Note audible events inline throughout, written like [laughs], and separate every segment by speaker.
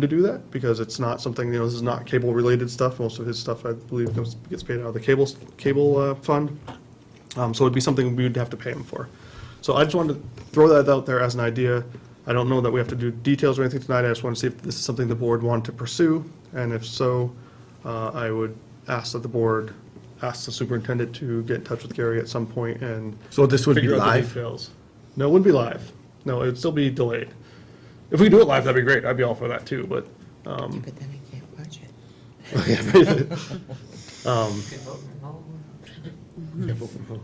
Speaker 1: to do that, because it's not something, you know, this is not cable-related stuff. Most of his stuff, I believe, goes- gets paid out of the cable, cable uh, fund. Um, So it'd be something we'd have to pay him for. So I just wanted to throw that out there as an idea. I don't know that we have to do details or anything tonight. I just want to see if this is something the board wanted to pursue, and if so, uh, I would ask that the board, ask the superintendent to get in touch with Gary at some point and
Speaker 2: So this would be
Speaker 1: figure out the
Speaker 2: live?
Speaker 1: details. No, it wouldn't be live. No, it'd still be delayed. If we could do it live, that'd be great. I'd be all for that too, but, um,
Speaker 3: But then I can't watch it.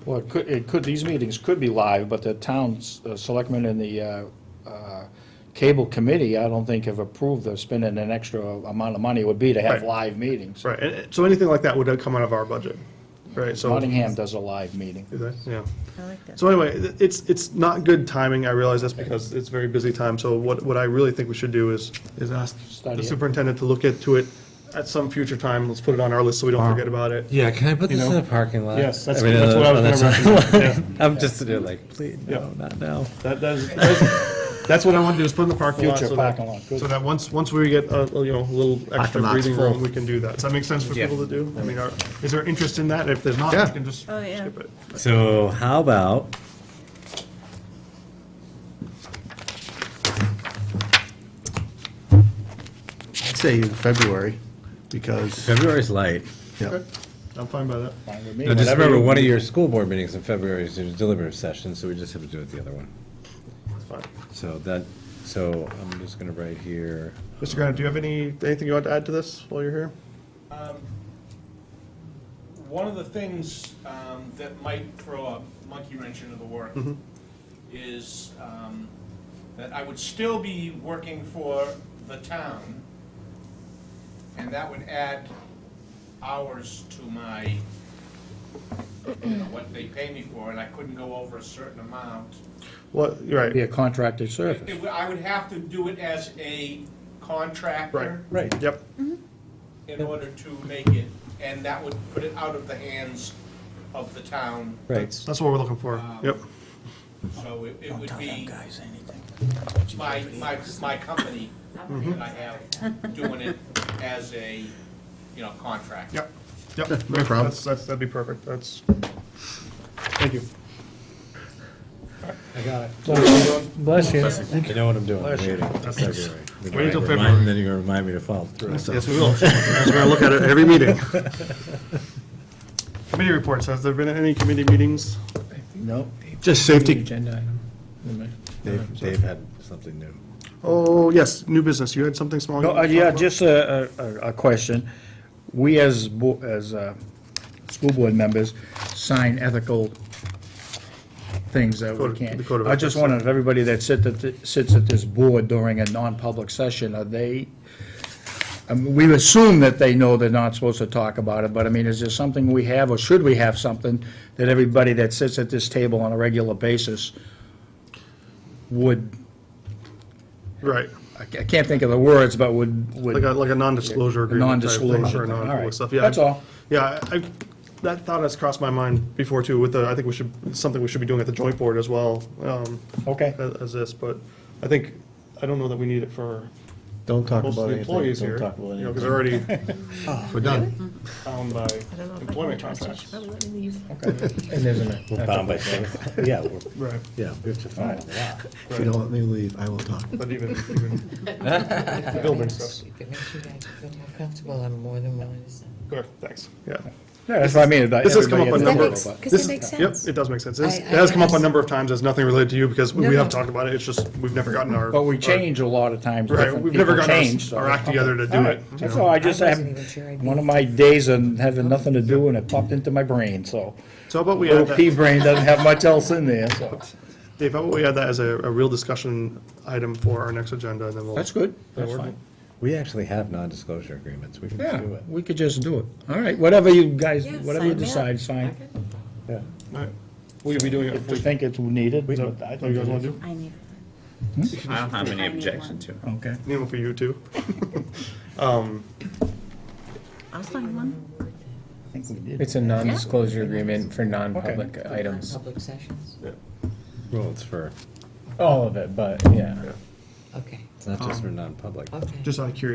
Speaker 4: Well, it could, it could, these meetings could be live, but the town's uh, selectmen and the uh, uh, cable committee, I don't think have approved of spending an extra amount of money it would be to have
Speaker 1: Right.
Speaker 4: live meetings.
Speaker 1: right, and- so anything like that would come out of our budget, right? So
Speaker 4: Nottingham does a live meeting.
Speaker 1: Do they? Yeah.
Speaker 3: I like that.
Speaker 1: So anyway, th- it's, it's not good timing, I realize that's because it's very busy time, so what, what I really think we should do is, is ask
Speaker 4: Study
Speaker 1: the
Speaker 4: it.
Speaker 1: superintendent to look into it at some future time, let's put it on our list so we don't forget about it.
Speaker 2: Yeah, can I put this in
Speaker 4: know?
Speaker 2: the parking lot?
Speaker 1: Yes, that's-
Speaker 2: I mean, uh,
Speaker 1: that's what I
Speaker 2: on the-
Speaker 1: was
Speaker 2: [laughs] on the
Speaker 1: gonna
Speaker 2: side. I'm just sitting there like, please, no,
Speaker 1: Yeah.
Speaker 2: not now.
Speaker 1: That, that's, that's- that's what I want to do, is put in the parking lot.
Speaker 4: Future
Speaker 1: so that-
Speaker 4: parking lot, good.
Speaker 1: So that once, once we get, a you know, a little extra
Speaker 2: Parking lot's
Speaker 1: breathing
Speaker 2: full.
Speaker 1: room, we can do that. Does that make sense for people to do? I mean, are, is there interest in that? If there's not,
Speaker 2: Yeah.
Speaker 1: we can just
Speaker 3: Oh, yeah.
Speaker 1: skip it.
Speaker 2: So how about?
Speaker 5: I'd say in February, because,
Speaker 2: February's light.
Speaker 5: yeah,
Speaker 1: Okay, I'm fine by that.
Speaker 4: Fine with me.
Speaker 2: No, just
Speaker 4: Whatever
Speaker 2: remember,
Speaker 4: you-
Speaker 2: one of your school board meetings in February is your deliberative session, so we just have to do it the other one.
Speaker 1: It's fine.
Speaker 2: So that, so I'm just gonna write here,
Speaker 1: Mr. Gardner, do you have any, anything you want to add to this while you're here?
Speaker 6: One of the things um, that might throw a monkey wrench into the work is um, that I would still be working for the town, and that would add hours to my, you know, what they pay me for, and I couldn't go over a certain amount.
Speaker 1: What, you're right.
Speaker 4: Be a contracted
Speaker 6: It-
Speaker 4: service.
Speaker 6: it would- I would have to do it as a contractor
Speaker 2: right,
Speaker 1: Yep,
Speaker 6: in order to make it, and that would put it out of the hands of the town
Speaker 2: right.
Speaker 1: that's what we're looking for.
Speaker 2: Um,
Speaker 1: Yep.
Speaker 6: So it it would be my, my, my company that I have doing it as a, you know, contract.
Speaker 1: Yep, yep.
Speaker 5: Yeah, no problem.
Speaker 1: That's, that's, that'd be perfect, that's, thank you.
Speaker 2: I got it.
Speaker 4: Bless you.
Speaker 2: I know what I'm doing, I'm waiting.
Speaker 1: That's-
Speaker 2: February. You're gonna
Speaker 1: Wait till
Speaker 2: remind-
Speaker 1: February.
Speaker 2: Then you're gonna remind me to follow through.
Speaker 1: Yes, we will. We're gonna look at it every meeting. [laughs] Committee reports, has there been any committee meetings?
Speaker 4: No.
Speaker 5: just safety,
Speaker 4: Agenda item.
Speaker 2: Dave, Dave had something new.
Speaker 1: Oh, yes, new business, you had something small? you
Speaker 4: No, uh,
Speaker 1: wanted to
Speaker 4: yeah,
Speaker 1: talk about?
Speaker 4: just a, a, a- a question. We as, bo- as, uh, school board members sign ethical things that we
Speaker 1: Code- the code
Speaker 4: can't.
Speaker 1: of
Speaker 4: I just
Speaker 1: ethics.
Speaker 4: wondered if everybody that sit at, the- sits at this board during a non-public session, are they, I mean, we assume that they know they're not supposed to talk about it, but I mean, is there something we have, or should we have something that everybody that sits at this table on a regular basis would,
Speaker 1: Right,
Speaker 4: I ca- I can't think of the words, but would, would.
Speaker 1: like a, like a non-disclosure agreement. type thing
Speaker 4: Non-disclosure
Speaker 1: for
Speaker 4: thing, all
Speaker 1: non-public
Speaker 4: right.
Speaker 1: stuff. Yeah,
Speaker 4: That's all.
Speaker 1: Yeah, I, I- that thought has crossed my mind before too, with the, I think we should, it's something we should be doing at the joint board as well. um,
Speaker 4: Okay.
Speaker 1: As, as this, but I think, I don't know that we need it for
Speaker 5: don't talk
Speaker 1: most of
Speaker 5: about
Speaker 1: the
Speaker 5: anything,
Speaker 1: employees
Speaker 5: don't
Speaker 1: here.
Speaker 5: talk about
Speaker 1: You know, because
Speaker 5: anything.
Speaker 1: they're already
Speaker 5: [laughs] We're done.
Speaker 1: bound by
Speaker 3: I don't know if I can
Speaker 1: employment
Speaker 3: trust you. She
Speaker 1: contracts.
Speaker 3: probably let me use that.
Speaker 4: And there's an.
Speaker 2: We're bound by things. Yeah, [laughs] we're,
Speaker 1: Right.
Speaker 2: yeah, we have to follow the law.
Speaker 5: If you don't let me leave, I will talk.
Speaker 1: But even, even, the bill brings us.
Speaker 3: If it makes you guys feel more comfortable, I'm more than willing to sign.
Speaker 1: Good, thanks, yeah.
Speaker 4: Yeah, that's what I mean.
Speaker 1: This has come up a number.
Speaker 3: makes-
Speaker 1: of-
Speaker 3: 'cause
Speaker 1: this-
Speaker 3: it makes
Speaker 1: Yep,
Speaker 3: sense.
Speaker 1: it does make sense. This-
Speaker 3: I-
Speaker 1: It has come up a
Speaker 3: I-
Speaker 1: number of times, it's nothing related to you, because we
Speaker 3: No,
Speaker 1: we have
Speaker 3: no.
Speaker 1: talked about it, it's just, we've never gotten our.
Speaker 4: But we
Speaker 1: our-
Speaker 4: change a lot of times.
Speaker 1: Right,
Speaker 4: different
Speaker 1: we've never
Speaker 4: people
Speaker 1: gotten
Speaker 4: change, so-
Speaker 1: our- our act together to
Speaker 4: All
Speaker 1: do
Speaker 4: right,
Speaker 1: it. you
Speaker 4: That's
Speaker 1: know.
Speaker 4: all, I just,
Speaker 3: I
Speaker 4: I
Speaker 3: wasn't even sure I'd
Speaker 4: have,
Speaker 3: be-
Speaker 4: one of my days and having nothing to do, and it popped into my brain, so.
Speaker 1: So how about we add
Speaker 4: Little
Speaker 1: that?
Speaker 4: pea brain doesn't have much else in there, so.
Speaker 1: Dave, how about we add that as a, a real discussion item for our next agenda, and then we'll.
Speaker 4: That's good,
Speaker 1: That'll
Speaker 4: that's
Speaker 1: work.
Speaker 4: fine.
Speaker 2: We actually have non-disclosure agreements, we can
Speaker 4: Yeah,
Speaker 2: do it.
Speaker 4: we could just do it. All right, whatever you guys,
Speaker 3: Yeah,
Speaker 4: whatever
Speaker 3: sign me
Speaker 4: you
Speaker 3: up.
Speaker 4: decide, sign.
Speaker 3: Okay.
Speaker 2: Yeah.
Speaker 1: All right. Will you be doing it?
Speaker 4: If we think it's needed,
Speaker 1: Is
Speaker 4: but
Speaker 1: that
Speaker 4: I
Speaker 1: what Oh, you
Speaker 4: think
Speaker 1: guys
Speaker 4: it
Speaker 1: want to
Speaker 4: is.
Speaker 1: do?
Speaker 7: I need,
Speaker 8: I don't have any
Speaker 7: I need
Speaker 8: objection
Speaker 7: one.
Speaker 8: to it.
Speaker 4: Okay.
Speaker 1: Even for you too.
Speaker 7: I'll sign one.
Speaker 4: I think we did.
Speaker 9: It's a non-disclosure agreement for non-public items.
Speaker 3: Public sessions.
Speaker 2: Well, it's for
Speaker 9: All of it, but, yeah.
Speaker 10: Okay,
Speaker 11: It's not just for non-public.
Speaker 10: okay.
Speaker 2: Just out of curiosity